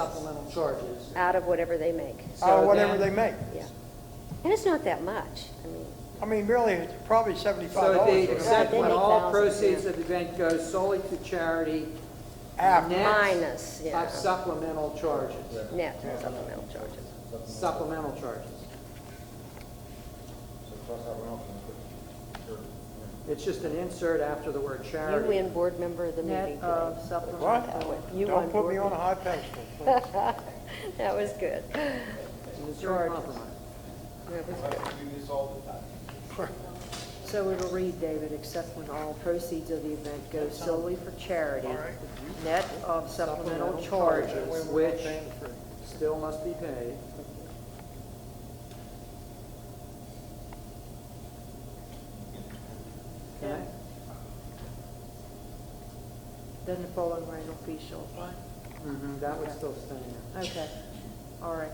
supplemental charges. out of whatever they make. So or Uh, whatever they then- make. Yeah. And it's not that much. I mean, I mean, really, it's probably seventy-five So dollars. they for accept- except when all 70,000, proceeds yeah. of the event go solely to charity. After. net minus, yeah, Of supplemental charges, net supplemental charges. supplemental charges. It's just an insert after the word You charity. win board member of the meeting Net today. of supplemental. What? You Don't won put me board. on a high pedestal, please. That was good. That And It's your compromise. was good. So it'll read, David, except when all proceeds of the event go solely for charity, net of supplemental charges. Which still must be paid. Okay? Then the full and rental fee shall apply. Mhm, That would still stay in. Okay, all right.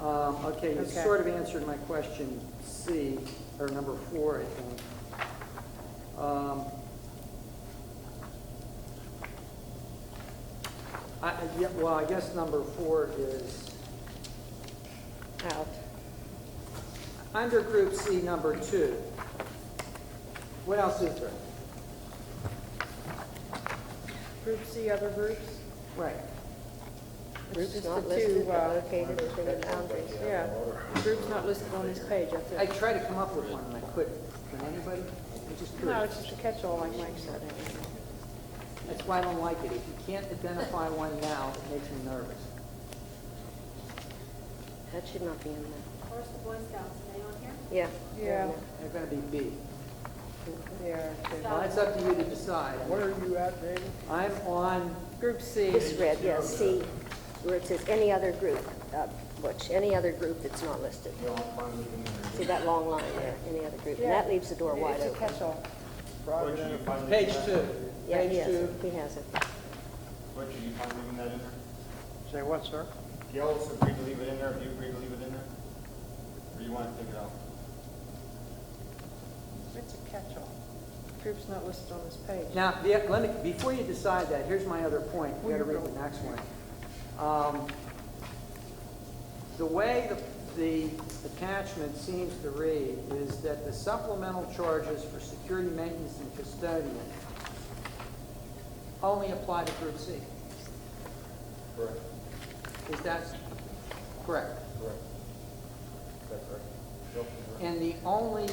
Um, Okay, you Okay. sort of answered my question C, or number four, I think. Um, I, I- yeah, well, I guess number four is, Out. under group C, number two. What else is there? Group C, other groups? Right. Groups not listed but uh, located within the boundaries. Yeah, groups not listed on this page, I I think. tried to come up with one and I couldn't. Can anybody? I just No, couldn't. it's just a catch-all, like Mike said. That's why I don't like it. If you can't identify one now, it makes me nervous. That should not be in there. Where's the Boy Scouts, are they on here? Yeah. Yeah, They're gonna be B. yeah. okay. Well, it's up to you to decide. Where are you at, David? I'm on, Group C. This red, yeah, C, where it says any other group, uh, which, any other group that's not listed. See that long line there, any other group? And that leaves the door wide It's a open. catch-all. Private enterprise. page two. Yeah, he Page has it. two. He has it. Butcher, you fine leaving that in there? Say what, sir? Gail also agreed to leave it in there, if you agreed to leave it in there? Or you want to take it out? It's a catch-all. Groups not listed on this page. Now, the- let me, before you decide that, here's my other point. You gotta read the next one. Um, The way the, the attachment seems to read is that the supplemental charges for security maintenance and custodian only apply to group C. Correct, Is that correct? correct. That's correct. Gail, correct. And the only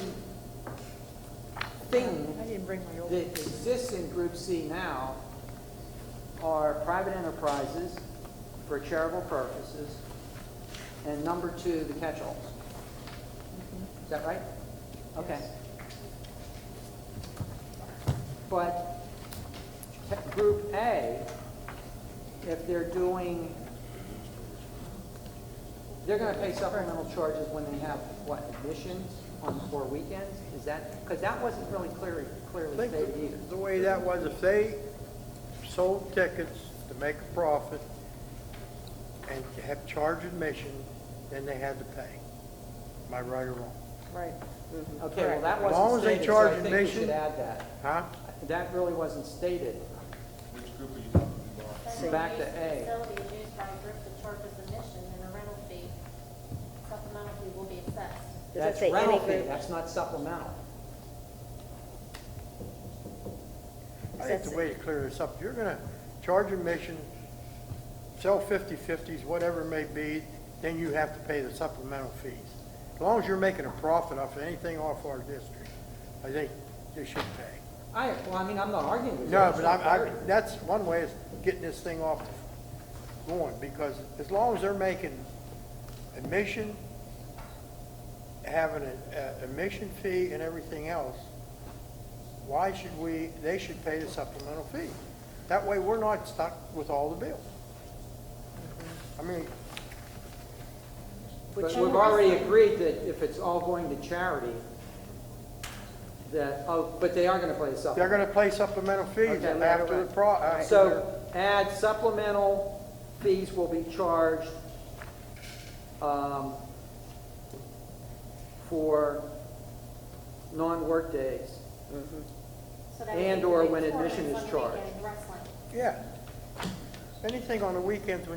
thing I didn't bring my old. that exists in Group C now are private enterprises for charitable purposes, and number two, the catch-alls. Is that right? Okay. But ca- Group A, if they're doing, they're gonna pay supplemental charges when they have, what, admissions on, or weekends? Is that, because that wasn't really clearly, I clearly think stated either. the way that was, if they sold tickets to make a profit and have charged admission, then they had to pay. Am I right or wrong? Right. Mm-hmm. Okay, well, that As long wasn't as they stated, so I charge think we should admission. add that. Huh? That really wasn't stated. Which group are you talking about? Says Back to use A. Facility is used by a group that charges admission and a rental fee. Supplemental fee will be assessed. Does it That's say any rental fee, group? that's not supplemental. I think the way to clear this up, you're gonna charge admission, sell fifty-fifties, whatever it may be, then you have to pay the supplemental fees. As long as you're making a profit off of anything off our district, I think you should pay. I, well, I mean, I'm not arguing with you. No, it's but not I, I, fair. that's one way is getting this thing off the lawn, because as long as they're making admission, having a, a admission fee and everything else, why should we, they should pay the supplemental fee. That way, we're not stuck with all the bills. I mean, But we've already agreed that if it's all going to charity, that, oh, but they are gonna pay the they're supplemental. gonna pay supplemental fees Okay, right, after the right. pro, uh, after their- So add supplemental fees will be charged, um, for non-work days. So that would And be or doing when tournaments admission is on the charged. weekend, Wrestling. yeah. Anything on the weekends when